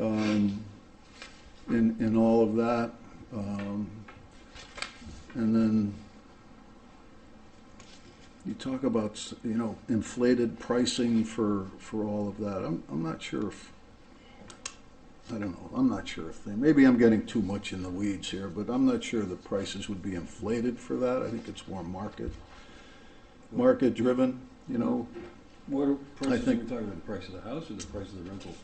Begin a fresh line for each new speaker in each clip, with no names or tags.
um, in, in all of that. Um, And then you talk about, s- you know, inflated pricing for, for all of that. I'm, I'm not sure if, I don't know, I'm not sure if they, maybe I'm getting too much in the weeds here, but I'm not sure the prices would be inflated for that. I think it's more market, market-driven, you know,
What are prices, are we
think-
talking about the price of the house or the price of the rental?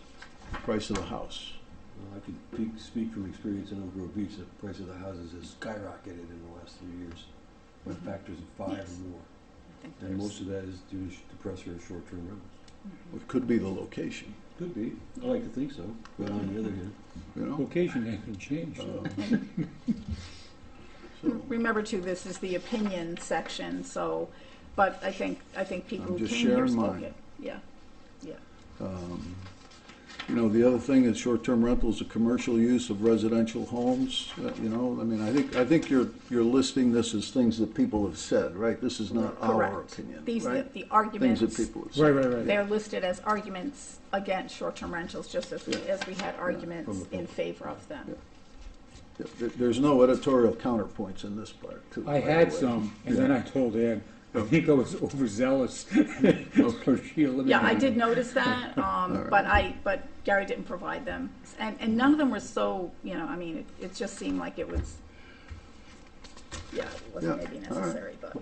price of the house.
Well, I can pe- speak from experience in Oak Grove Beach, the price of the houses has skyrocketed in the last three years by factors of five
Yes.
or more.
I think
And
there's- Mm-hmm.
most of that is due to sh- depressor or short-term rentals.
It could be the location,
Could be, I like to think so, but on the other hand,
you know?
Location hasn't changed.
Um,
Mm,
so-
Remember too, this is the opinion section, so, but I think, I think people
I'm
who
just
came here
sharing
spoke
mine.
it. Yeah,
Um, You know, the other thing is short-term rentals, a commercial use of residential homes, uh, you know, I mean, I think, I think you're, you're listing this as things that people have said, right? This is not our
correct.
opinion,
These, the
right?
the
Things that
arguments,
people have
Right,
said.
right, right.
they're listed as arguments against short-term rentals, just as we,
Yeah.
as we had arguments in favor of them.
There- There's no editorial counterpoints in this part, too.
I
by the
had
way.
some, and then I told Ann, I think I was overzealous. So she eliminated.
Yeah, I did notice that, um,
right.
but I, but Gary didn't provide them. And, and none of them were so, you know, I mean, it, it just seemed like it was, yeah, it wasn't
Yeah,
maybe
all right.
necessary, but.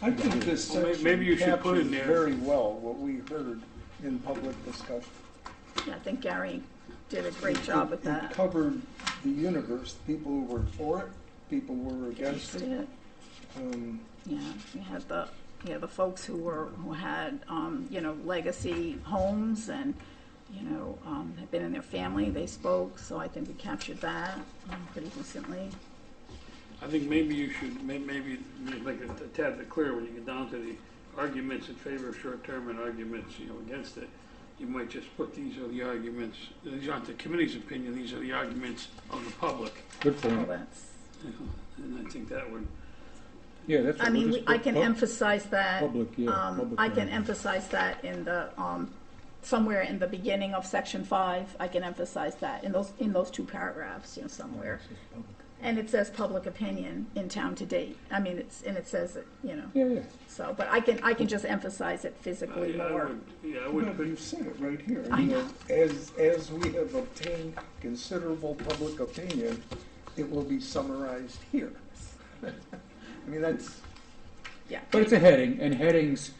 I think this
Well, may-
section
maybe you should put
captures
in there-
very well what we heard in public discussion.
Yeah, I think Gary did a great job with
It- It
that.
covered the universe, people who were for it, people who were against it.
Yeah,
Um,
you had the, you had the folks who were, who had, um, you know, legacy homes and, you know, um, had been in their family, they spoke, so I think we captured that um, pretty decently.
I think maybe you should, may- maybe, like, a tad bit clear, when you get down to the arguments in favor of short-term and arguments, you know, against it, you might just put, these are the arguments, these aren't the committee's opinion, these are the arguments of the public.
Good
Well,
point.
that's,
you know, And I think that would,
Yeah, that's.
I
what
mean,
we'll
we-
just
I
put
can
pub-
emphasize that.
Public, yeah,
um,
public
I can
comment.
emphasize that in the, um, somewhere in the beginning of section five, I can emphasize that in those, in those two paragraphs, you know, somewhere. And it says public opinion in town to date. I mean, it's, and it says, it, you know,
Yeah, yeah.
so, but I can, I can just emphasize it
I
physically
I
more.
would, yeah, I
No,
would, put-
you've said it right here.
I
You
know.
As, as we have obtained considerable public opinion, it will be summarized here. I mean, that's,
Yeah.
But it's a heading, and headings,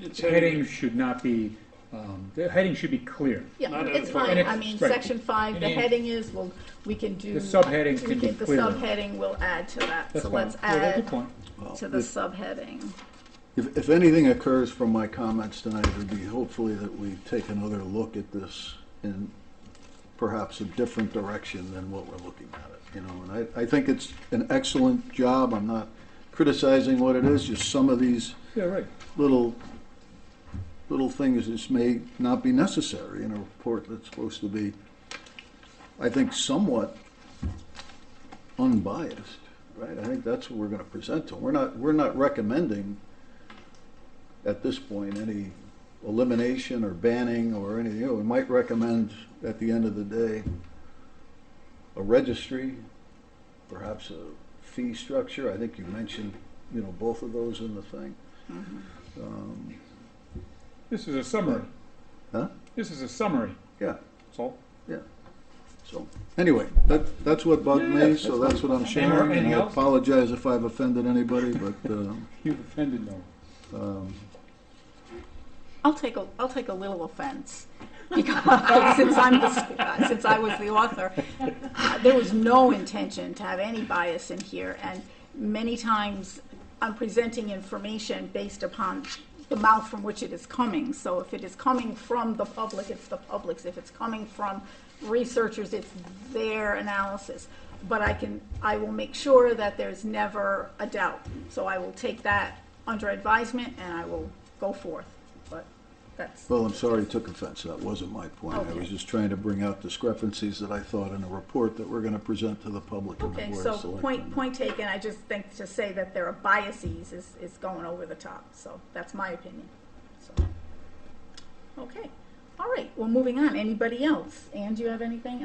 it's heading,
headings should not be, um, the heading should be clear.
Yeah,
Not
it's
editorial.
fine.
And
I
it's-
mean,
right.
section five, the
And-
heading is, well, we can do.
The subheading
we
can be
The
clearer.
subheading will add to that,
That's
so
fine.
let's
Yeah, that's a good
add
point.
Well,
to the
if-
subheading.
If, if anything occurs from my comments tonight, it would be hopefully that we take another look at this in perhaps a different direction than what we're looking at it, you know, and I, I think it's an excellent job, I'm not criticizing what it is, just some of these
Yeah, right.
little, little things that may not be necessary in a report that's supposed to be, I think somewhat unbiased, right? I think that's what we're gonna present to 'em. We're not, we're not recommending at this point any elimination or banning or anything. You know, We might recommend at the end of the day a registry, perhaps a fee structure. I think you mentioned, you know, both of those in the thing.
Mm-hmm.
Um,
This is a summary.
Huh?
This is a summary,
Yeah,
that's all.
so, anyway, that, that's what bugged
Yeah,
me,
yeah,
so that's what I'm
Any more-
sharing. And
anything
I
else?
apologize if I've offended anybody, but, um,
You've offended no one.
um,
I'll take a, I'll take a little offense, because since I'm the, uh, since I was the author, uh, there was no intention to have any bias in here, and many times I'm presenting information based upon the mouth from which it is coming, so if it is coming from the public, it's the public's, if it's coming from researchers, it's their analysis. But I can, I will make sure that there's never a doubt, so I will take that under advisement, and I will go forth, but that's.
well, I'm sorry I took offense, that wasn't my point. I was
Okay.
just trying to bring out discrepancies that I thought in a report that we're gonna present to the public and the
Okay,
board
so
of selectmen.
point, point taken, I just think to say that there are biases is, is going over the top, so that's my opinion, so. Okay, All right, well, moving on, anybody else? Anne, do you have anything